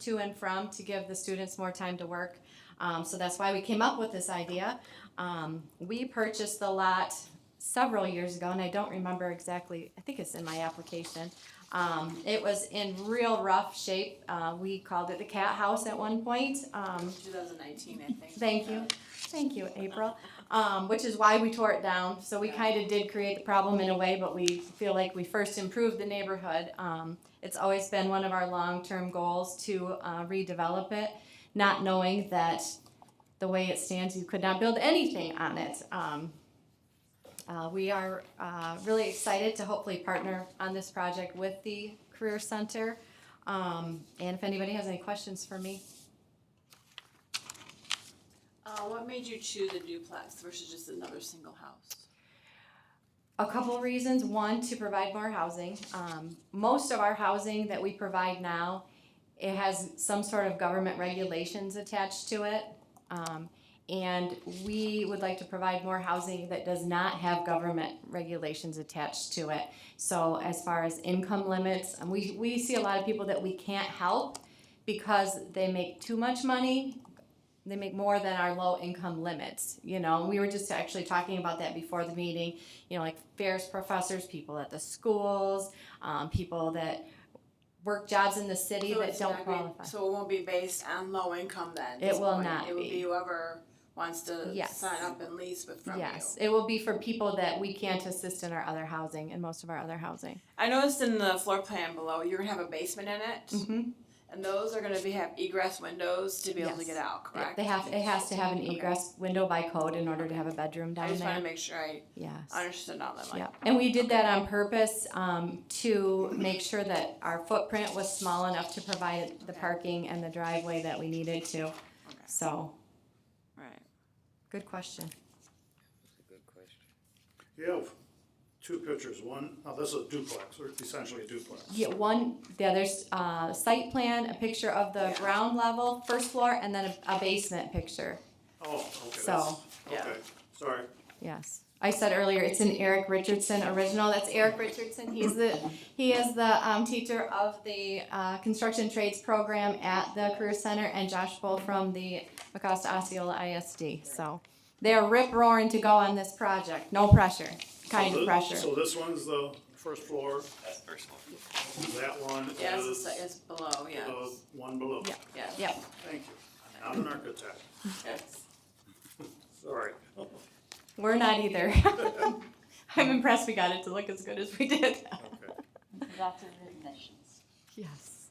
to and from to give the students more time to work. Um, so that's why we came up with this idea. Um, we purchased the lot several years ago, and I don't remember exactly, I think it's in my application. Um, it was in real rough shape. Uh, we called it the cat house at one point. Um, 2019, I think. Thank you, thank you, April. Um, which is why we tore it down, so we kinda did create the problem in a way, but we feel like we first improved the neighborhood. Um, it's always been one of our long-term goals to uh, redevelop it, not knowing that the way it stands, you could not build anything on it. Um, uh, we are, uh, really excited to hopefully partner on this project with the Career Center. Um, and if anybody has any questions for me, Uh, what made you choose a duplex versus just another single house? A couple of reasons. One, to provide more housing. Um, most of our housing that we provide now, it has some sort of government regulations attached to it. Um, and we would like to provide more housing that does not have government regulations attached to it. So as far as income limits, um, we, we see a lot of people that we can't help because they make too much money they make more than our low income limits you know we were just actually talking about that before the meeting you know like fairs professors people at the schools um, people that work jobs in the city So that it's don't not gonna- qualify So it won't be based on low income then? at It this will point? not It will be. be whoever wants to Yes. sign up and lease with from you. yes it will be for people that we can't assist in our other housing in most of our other housing I noticed in the floor plan below, you're gonna have a basement in it, mm-hmm. and those are gonna be, have egress windows to be able to Yes. get out, correct? they have it has to have an Okay. egress window by code in order to have a bedroom I down just wanna there make sure I yes understood all that, like, Yeah, and we did that on purpose um, to make sure that our footprint was small enough to provide the Okay. parking and the driveway that we needed to. So, right. good question. Good question. You have two pictures, one, oh, this is a duplex, or essentially a duplex. Yeah, one, yeah, there's uh site plan, a picture of the Yeah. ground level, first floor, and then a a basement picture, Oh, okay, that's, So- Yeah. okay, sorry. yes. I said earlier, it's an Eric Richardson original, that's Eric Richardson, he's the, he is the um, teacher of the uh, construction trades program at the Career Center, and Josh Bull from the Acosta Osceola ISD, so. They're rip roaring to go on this project, no pressure, kind of So thi- pressure, So this one's the first floor, That's personal. that one Yeah, it's, is the se- it's below, the yes, one below. Yeah. yes. yep. Thank you. I'm an architect, yes. sorry. We're not either. I'm impressed we got it to look as good as we did. Okay. Lots of dimensions. Yes.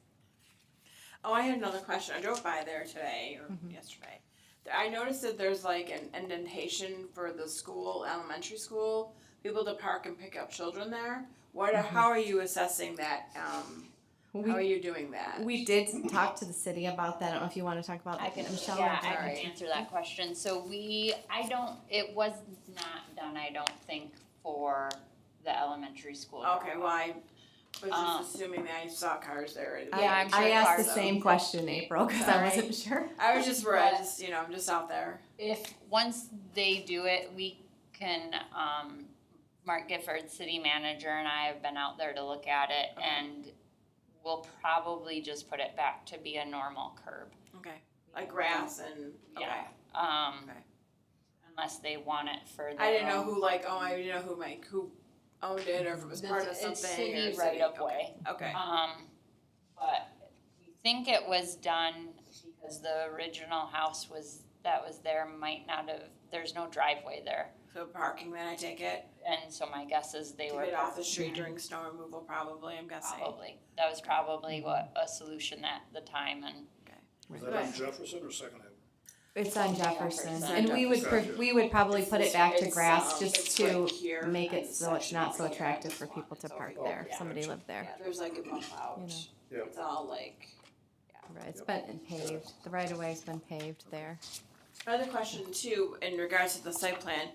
Oh, I had another question. I drove by there today or Mm-hmm. yesterday. There- I noticed that there's like an indentation for the school, elementary school, people to park and pick up children there. What? How are you assessing that? Um, how are Mm-hmm. We, you doing that? we did talk to the city about that. I don't know if you want to talk about I can, Michelle. yeah, I sorry. can answer that question. So we, I don't, it was not done, I don't think, for the elementary school. okay. Well, I was just Um, assuming that I saw cars there. I- Yeah, I'm sure I asked the Carson- same question, April, because I Sorry. wasn't sure. I was just worried. I just you know, I'm just out there. If, once they do it, we can, um, Mark Gifford, city manager, and I have been out there to look at it Okay. and we'll probably just put it back to be a normal curb. Okay. Like grass and okay. Yeah, um, Okay. unless they want it for their I didn't know own- who like oh I didn't know who like who owned it or if it was part of It's something. or city city. right of Okay. way. Okay. Um, but we think it was done because the original house was, that was there might not have, there's no driveway there. So parking then I take it. And so my guess is they To were. get off the street during snow removal, probably, I'm guessing. Probably, that was probably what, a solution at the time and Is that on Jefferson or Second Avenue? It's on Jefferson, It's on and we would, pre- Jefferson. we would probably put it back to It's, grass um, just it's to right here make on it this so it's section not so over here. attractive for This one, people to it's over park here. there, Yeah. somebody lived there. Yeah, there's like a bump out. Yeah. It's all like, Right, It's been paved, the right of way's been paved there. another question too, in regards to the site plan.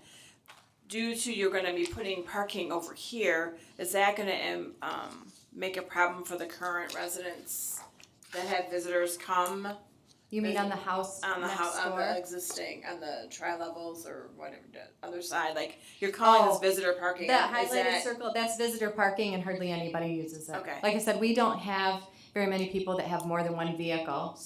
Due to you're gonna be putting parking over here, is that gonna, um, um, make a problem for the current residents that have visitors come You mean Is it on the house on the house, next on the door? existing, on the tri-levels or whatever, the other side, like, you're calling Oh, this visitor parking, is That highlighted that, circle, that's visitor parking and hardly anybody uses it. Okay. Like I said, we don't have very many people that have more than one vehicle.